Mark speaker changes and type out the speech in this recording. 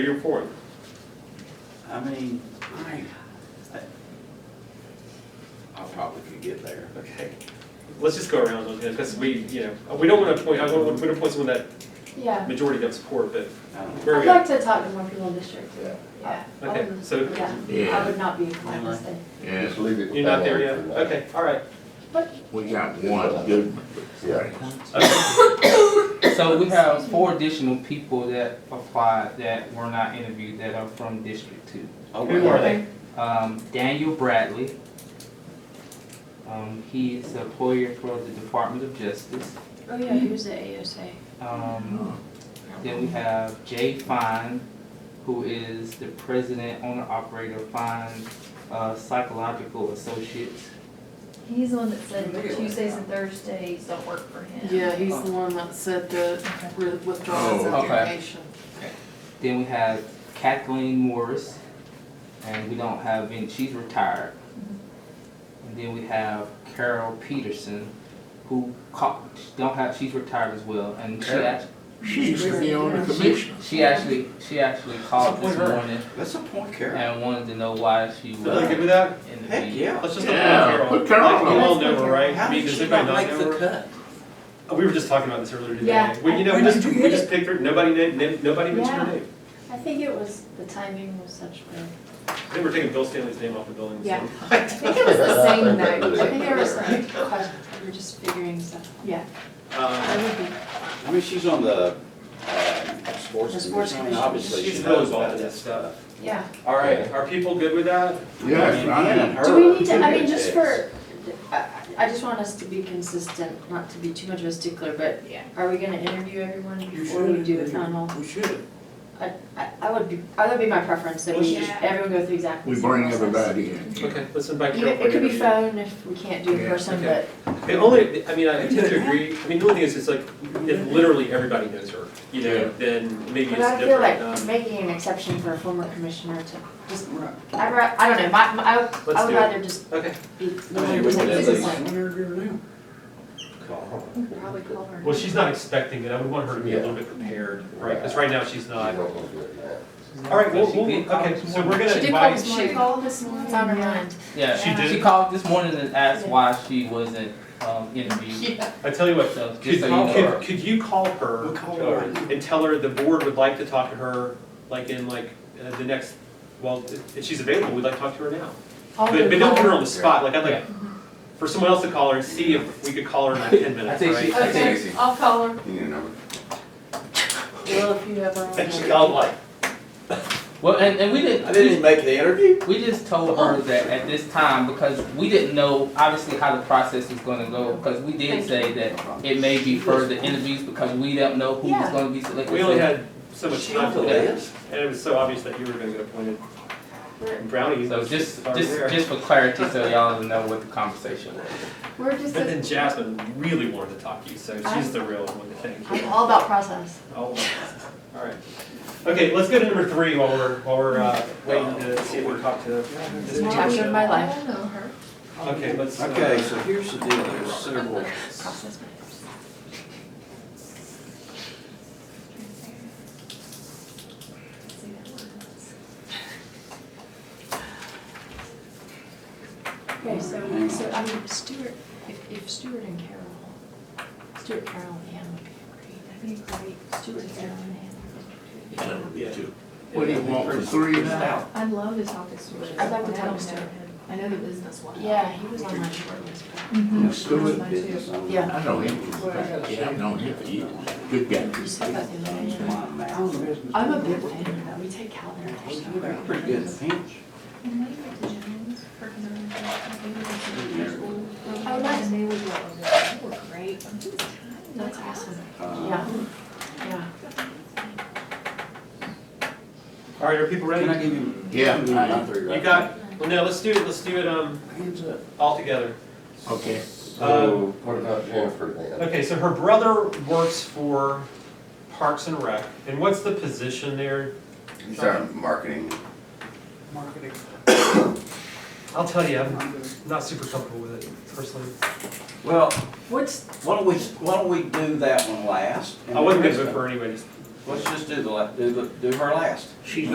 Speaker 1: You're for it.
Speaker 2: I mean, I, I probably could get there.
Speaker 1: Okay. Let's just go around those, because we, you know, we don't want to appoint, I don't want to appoint someone that
Speaker 3: Yeah,
Speaker 1: majority don't support, but
Speaker 2: I don't know.
Speaker 1: where are
Speaker 3: I'd
Speaker 1: we at?
Speaker 3: like to talk to more people in this district.
Speaker 4: Yeah.
Speaker 3: Yeah. I
Speaker 1: Okay,
Speaker 3: wouldn't-
Speaker 1: so-
Speaker 3: Yeah, I would not be inclined to stay.
Speaker 4: Just leave it.
Speaker 1: You're not there yet?
Speaker 4: alone for now.
Speaker 1: Okay, all right.
Speaker 5: We got one good.
Speaker 4: Yeah.
Speaker 1: Okay.
Speaker 6: So we have four additional people that applied that were not interviewed that are from District Two.
Speaker 2: Oh,
Speaker 1: Who are they?
Speaker 6: Um, Daniel Bradley. Um, he's a lawyer for the Department of Justice.
Speaker 7: Oh yeah, he was the ASA.
Speaker 6: Um, then we have Jay Fine, who is the president, owner, operator of Fine uh, Psychological Associates.
Speaker 8: He's the one that said that Tuesdays and Thursdays don't work for him.
Speaker 9: Yeah, he's the one that said the re- withdrawal his
Speaker 5: Oh,
Speaker 6: okay.
Speaker 9: application.
Speaker 6: Then we have Kathleen Morris, and we don't have any, she's retired. And then we have Carol Peterson, who ca- don't have, she's retired as well, and she
Speaker 5: Carol.
Speaker 6: act-
Speaker 5: She used to be on the commission.
Speaker 6: she actually, she actually called this morning
Speaker 2: That's a point, Karen.
Speaker 6: and wanted to know why she
Speaker 1: So they're good
Speaker 6: was
Speaker 1: with that?
Speaker 6: in the
Speaker 2: Heck,
Speaker 6: meeting.
Speaker 2: yeah.
Speaker 1: Let's just look
Speaker 5: Yeah,
Speaker 1: at Carol.
Speaker 5: put Carol
Speaker 1: You
Speaker 5: on.
Speaker 1: all know her, right?
Speaker 2: How
Speaker 1: I mean,
Speaker 2: did
Speaker 1: does
Speaker 2: she
Speaker 1: anybody
Speaker 2: not
Speaker 1: not
Speaker 2: make
Speaker 1: know
Speaker 2: the
Speaker 1: her?
Speaker 2: cut?
Speaker 1: We were just talking about this earlier today.
Speaker 3: Yeah.
Speaker 1: We, you know, we
Speaker 3: Where
Speaker 1: just,
Speaker 3: did you
Speaker 1: we
Speaker 3: get
Speaker 1: just picked her, nobody named, named- nobody mentioned her
Speaker 3: Yeah.
Speaker 1: name.
Speaker 3: I think it was, the timing was such good.
Speaker 1: I think we're taking Bill Stanley's name off the building. so-
Speaker 3: Yeah.
Speaker 8: I think it was the same night.
Speaker 3: I think there was some question, we were just figuring stuff, yeah,
Speaker 1: Uh,
Speaker 3: that would be.
Speaker 2: I mean, she's on the, uh,
Speaker 3: The
Speaker 2: sports
Speaker 3: sports
Speaker 2: commission,
Speaker 3: commission.
Speaker 2: obviously
Speaker 1: She's
Speaker 2: she
Speaker 1: really
Speaker 2: knows
Speaker 1: involved
Speaker 2: about
Speaker 1: in
Speaker 2: that
Speaker 1: that
Speaker 2: stuff.
Speaker 1: stuff.
Speaker 3: Yeah.
Speaker 1: All right, are people good with that?
Speaker 5: Yes, I am.
Speaker 3: Do we need to, I mean, just for, I, I just want us to be consistent, not to be too much of a stickler, but are we gonna interview everyone before we do the final?
Speaker 2: We should.
Speaker 3: I, I I would be, I would be my preference, that we,
Speaker 7: Let's just-
Speaker 3: everyone go through exactly
Speaker 5: We
Speaker 3: the same process.
Speaker 5: bring everybody in.
Speaker 1: Okay, let's invite
Speaker 3: You
Speaker 1: Carol.
Speaker 3: know, It could be
Speaker 1: fun.
Speaker 3: phone if we can't do it in
Speaker 5: Yeah,
Speaker 3: person,
Speaker 1: okay.
Speaker 3: but
Speaker 1: The only, I mean, I tend to agree, I mean, the only thing is, it's like, if literally everybody knows her, you
Speaker 5: Yeah.
Speaker 1: know, then maybe it's
Speaker 3: But I feel like
Speaker 1: different. um,
Speaker 3: making an exception for a former commissioner to just, I, ra- I don't know, my, my, I would-
Speaker 1: Let's
Speaker 3: I would
Speaker 1: do it.
Speaker 3: rather just
Speaker 1: Okay,
Speaker 3: be.
Speaker 2: Hey, we can do this. I
Speaker 3: consistent.
Speaker 2: wonder if you're new. Call her.
Speaker 3: Probably call her.
Speaker 1: well, she's not expecting it, I would want her to be a little bit prepared, right, because right now she's not.
Speaker 4: We're not gonna do it now.
Speaker 1: All right, well,
Speaker 6: She
Speaker 1: we'll,
Speaker 6: did call
Speaker 1: okay,
Speaker 6: this
Speaker 1: so
Speaker 6: morning.
Speaker 1: we're gonna
Speaker 3: She did call
Speaker 1: invite,
Speaker 3: this morning.
Speaker 9: She called this morning.
Speaker 3: It's on her mind.
Speaker 6: Yeah,
Speaker 1: She did?
Speaker 6: she called this morning and asked why she wasn't um, interviewed.
Speaker 1: I tell you what,
Speaker 6: So
Speaker 1: could,
Speaker 6: just so you know.
Speaker 1: could, could you call her?
Speaker 2: We'll call her.
Speaker 1: And tell her the board would like to talk to her, like in like, uh, the next, well, if- if she's available, we'd like to talk to her now. But, but don't put her on the spot, like, I'd like, for someone else to call her and see if we could call her in like ten
Speaker 6: I
Speaker 1: minutes,
Speaker 6: think she,
Speaker 1: right?
Speaker 6: I think
Speaker 9: Okay, I'll call her.
Speaker 4: You know.
Speaker 9: Well, if you have her on.
Speaker 1: And she called like,
Speaker 6: Well, and, and we
Speaker 2: I
Speaker 6: didn't,
Speaker 2: didn't even make the interview.
Speaker 6: we just told her that at this time, because we didn't know obviously how the process was gonna go, because we did say that it may be further interviews because we don't know who was
Speaker 3: Yeah.
Speaker 6: gonna be selected.
Speaker 1: we only
Speaker 6: So-
Speaker 1: had so much
Speaker 2: She
Speaker 1: time for
Speaker 2: only
Speaker 1: that,
Speaker 2: lives.
Speaker 1: and it was so obvious that you were gonna get appointed. And Brownie
Speaker 6: So
Speaker 1: was
Speaker 6: just,
Speaker 1: already
Speaker 6: just,
Speaker 1: there.
Speaker 6: just for clarity, so y'all know what the conversation was.
Speaker 3: We're just,
Speaker 1: And then Jasmine really wanted to talk to you, so she's
Speaker 3: I'm-
Speaker 1: the real one to thank you.
Speaker 3: I'm all about process.
Speaker 1: All right. Okay, let's go to number three while we're, while we're uh, waiting to see if we can talk to this
Speaker 3: It's a
Speaker 1: person.
Speaker 3: chapter of my
Speaker 8: I
Speaker 3: life,
Speaker 8: don't know her.
Speaker 1: Okay, let's. uh,
Speaker 2: Okay, so here's the deal, there's several,
Speaker 3: process matters.
Speaker 7: Okay, so, so, I mean, Stuart, if, if Stuart and Carol, Stuart, Carol, and Anne would be great, that'd be great, Stuart, Carol, and Anne.
Speaker 1: Yeah.
Speaker 5: What do you want for three now?
Speaker 8: I'd love to talk to Stuart.
Speaker 3: I'd like to talk
Speaker 8: I don't
Speaker 3: to
Speaker 8: know
Speaker 3: Stuart.
Speaker 8: him. I know the business well.
Speaker 3: Yeah, he was on my short list, but
Speaker 8: Mm-hmm.
Speaker 5: Let's do it.
Speaker 2: business owners.
Speaker 3: Yeah.
Speaker 5: I know him. Yeah, I've known him for years. Good guy.
Speaker 3: you said that the other day. I'm a big fan of that, we take Cal there, they're so great.
Speaker 2: Pretty good in the pinch.
Speaker 8: I would like to meet with you. That would work great. I'm just tired.
Speaker 3: That's awesome,
Speaker 2: Uh,
Speaker 3: yeah, yeah.
Speaker 1: All right, are people ready?
Speaker 2: Can I give you?
Speaker 5: Yeah,
Speaker 2: You
Speaker 5: I-
Speaker 2: got three, right?
Speaker 1: You got, well, no, let's do it, let's do it um,
Speaker 2: Hands up.
Speaker 1: all together.
Speaker 5: Okay.
Speaker 4: So what about Jennifer then?
Speaker 1: Uh, Okay, so her brother works for Parks and Rec, and what's the position there?
Speaker 4: You started marketing.
Speaker 2: Marketing.
Speaker 1: I'll tell you, I'm not super comfortable with it personally.
Speaker 2: Well, what's, why don't we, why don't we do that one last? and
Speaker 1: I wasn't
Speaker 2: the
Speaker 1: gonna
Speaker 2: rest
Speaker 1: vote for her anyway, just
Speaker 2: Let's just do the, la- do the, do her last.
Speaker 5: She's